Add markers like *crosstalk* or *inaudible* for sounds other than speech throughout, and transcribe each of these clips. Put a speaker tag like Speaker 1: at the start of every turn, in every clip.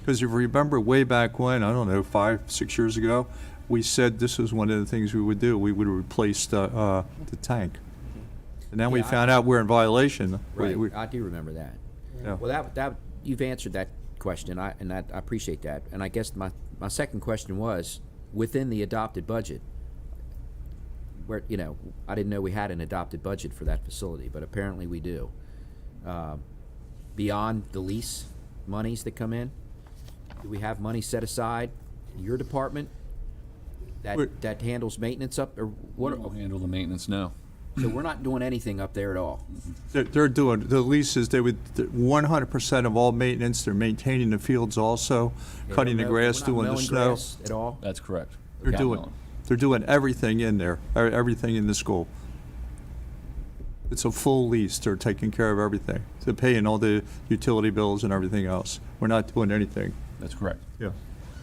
Speaker 1: Because if you remember way back when, I don't know, five, six years ago, we said this is one of the things we would do. We would replace the, uh, the tank. And then we
Speaker 2: Yeah, I-
Speaker 1: found out we're in violation. We-
Speaker 2: Right,
Speaker 1: we-
Speaker 2: I do remember that.
Speaker 1: Yeah.
Speaker 2: Well, that, that, you've answered that question, I, and that, I appreciate that. And I guess my, my second question was, within the adopted budget, where, you know, I didn't know we had an adopted budget for that facility, but apparently we do. Um, Beyond the lease monies that come in, do we have money set aside in your department
Speaker 1: We're-
Speaker 2: that, that handles maintenance up, or what?
Speaker 3: We'll handle the maintenance now.
Speaker 2: So we're not doing anything up there at all?
Speaker 1: They're, they're doing, the leases, they would, one hundred percent of all maintenance, they're maintaining the fields also,
Speaker 2: They
Speaker 1: cutting the
Speaker 2: don't mow- we're
Speaker 1: grass,
Speaker 2: not
Speaker 1: doing the
Speaker 2: mowing
Speaker 1: snow.
Speaker 2: grass At all?
Speaker 3: That's correct.
Speaker 1: They're
Speaker 3: Not
Speaker 1: doing,
Speaker 3: mowing.
Speaker 1: they're doing everything in there, e- everything in the school. It's a full lease, they're taking care of everything. They're paying all the utility bills and everything else. We're not doing anything.
Speaker 3: That's correct.
Speaker 1: Yeah.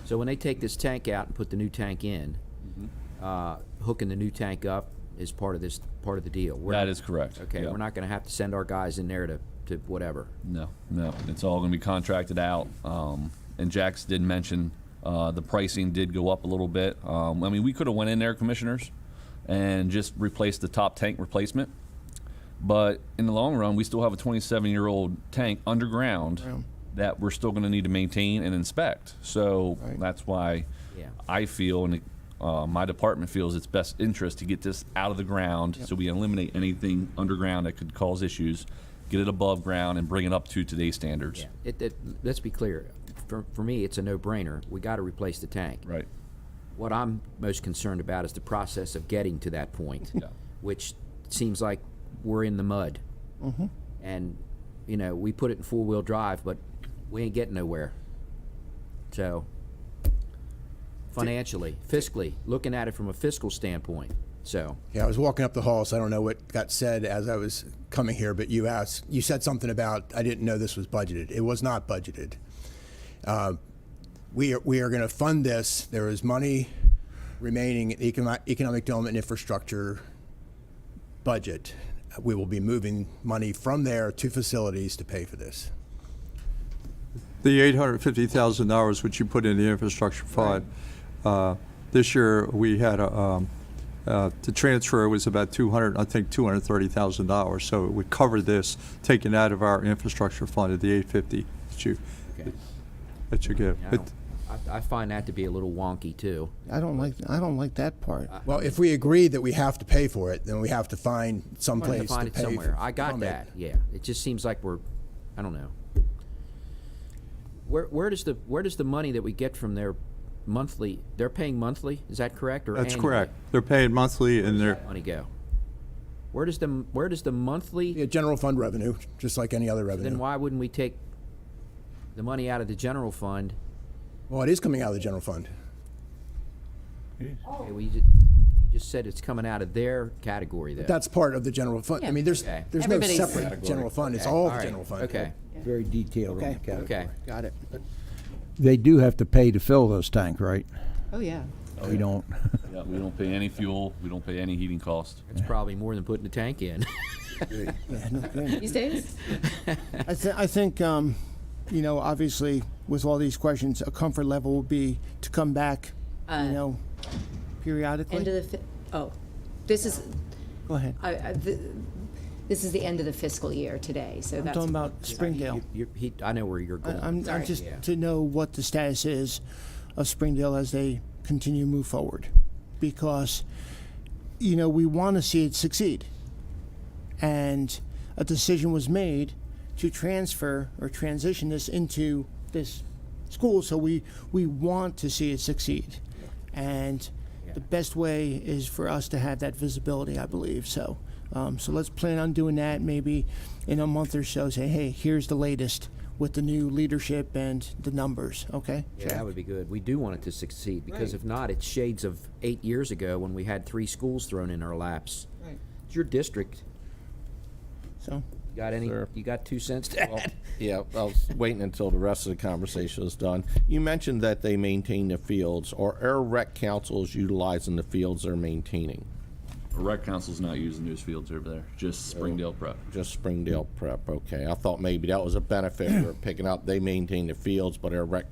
Speaker 2: So when they take this tank out and put the new tank in,
Speaker 3: Mm-hmm.
Speaker 2: uh, hooking the new tank up is part of this, part of the deal? We're-
Speaker 3: That is correct.
Speaker 2: Okay,
Speaker 3: yeah.
Speaker 2: we're not gonna have to send our guys in there to, to whatever.
Speaker 3: No, no, it's all gonna be contracted out. Um, and Jax did mention, uh, the pricing did go up a little bit. Um, I mean, we could have went in there, commissioners, and just replaced the top tank replacement. But in the long run, we still have a 27-year-old tank underground that we're still gonna need to maintain and inspect. So
Speaker 4: Right.
Speaker 3: that's why
Speaker 2: Yeah.
Speaker 3: I feel and uh, my department feels it's best interest to get this out of the ground so we eliminate anything underground that could cause issues, get it above ground, and bring it up to today's standards.
Speaker 2: It, it, let's be clear, for, for me, it's a no-brainer, we gotta replace the tank.
Speaker 3: Right.
Speaker 2: What I'm most concerned about is the process of getting to that point,
Speaker 3: Yeah.
Speaker 2: which seems like we're in the mud. And, you know, we put it in four-wheel drive, but we ain't getting nowhere. So, financially, fiscally, looking at it from a fiscal standpoint, so,
Speaker 4: Yeah, I was walking up the hall, so I don't know what got said as I was coming here, but you asked, you said something about, I didn't know this was budgeted. It was not budgeted. Uh, We are, we are going to fund this. There is money remaining in the econo- economic development infrastructure budget. We will be moving money from there to facilities to pay for this.
Speaker 1: The eight hundred fifty thousand dollars which you put in the infrastructure fund, uh, this year, we had a, um, uh, the transfer was about two hundred, I think, two hundred thirty thousand dollars. So it would cover this, taken out of our infrastructure fund at the eight fifty that you,
Speaker 2: okay.
Speaker 1: that you give.
Speaker 2: I
Speaker 1: It-
Speaker 2: don't- I, I find that to be a little wonky, too.
Speaker 5: I don't like, I don't like that part.
Speaker 6: Uh,
Speaker 4: Well, if we agree that we have to pay for it, then we have to find some
Speaker 2: Trying
Speaker 4: place
Speaker 2: to find it
Speaker 4: to pay.
Speaker 2: somewhere. I got
Speaker 4: from it.
Speaker 2: that. Yeah. It just seems like we're, I don't know. Where where does the where does the money that we get from their monthly? They're paying monthly. Is that correct or
Speaker 1: That's
Speaker 2: annually?
Speaker 1: correct. They're paying monthly and they're,
Speaker 2: That money go. Where does the where does the monthly?
Speaker 4: Yeah, general fund revenue, just like any other revenue.
Speaker 2: Then why wouldn't we take the money out of the general fund?
Speaker 4: Well, it is coming out of the general fund. Oh.
Speaker 2: Okay, we just, you just said it's coming out of their category though.
Speaker 4: That's part of the general fund. I mean, there's,
Speaker 2: Okay.
Speaker 4: there's no
Speaker 7: Everybody's-
Speaker 4: separate general fund. It's
Speaker 2: Okay,
Speaker 4: all the
Speaker 2: right,
Speaker 4: general fund.
Speaker 2: Okay.
Speaker 6: very detailed on the
Speaker 5: Okay.
Speaker 6: category.
Speaker 2: Okay.
Speaker 5: Got it.
Speaker 6: They do have to pay to fill those tanks, right?
Speaker 7: Oh, *laughs* yeah.
Speaker 6: We *laughs* don't,
Speaker 3: Yeah, we don't pay any fuel. We don't pay any heating cost.
Speaker 2: It's probably more than putting the tank in. *laughs*
Speaker 7: These days?
Speaker 5: I, th- I think, um, you know, obviously, with all these questions, a comfort level would be to come back, you know, periodically.
Speaker 7: End of the, fi- oh, this is,
Speaker 5: Go ahead.
Speaker 7: I, I, th- this is the end of the fiscal year today, so
Speaker 5: I'm
Speaker 7: that's.
Speaker 5: talking about Springdale.
Speaker 2: You- he, I know where you're
Speaker 5: I-
Speaker 2: going.
Speaker 5: I'm, I'm
Speaker 7: Sorry.
Speaker 5: just
Speaker 2: Yeah.
Speaker 5: to know what the status is of Springdale as they continue to move forward. Because, you know, we want to see it succeed. And a decision was made to transfer or transition this into this school, so we, we want to see it succeed. And the best way is for us to have that visibility, I believe, so. Um, so let's plan on doing that maybe in a month or so, say, hey, here's the latest with the new leadership and the numbers, okay?
Speaker 2: Yeah, that would be good. We do want it to succeed, because if not, it's shades of eight years ago when we had three schools thrown in our laps. Right. It's your district.
Speaker 5: So,
Speaker 2: You got any, you got two cents to add?
Speaker 8: Yeah, I was waiting until the rest of the conversation was done. You mentioned that they maintain the fields, or Air Rec Council is utilizing the fields they're maintaining,
Speaker 3: The rec council's not using those fields over there, just Springdale Prep.
Speaker 8: just Springdale Prep, okay. I thought maybe that was a benefit for picking up, they maintain the fields, but Air Rec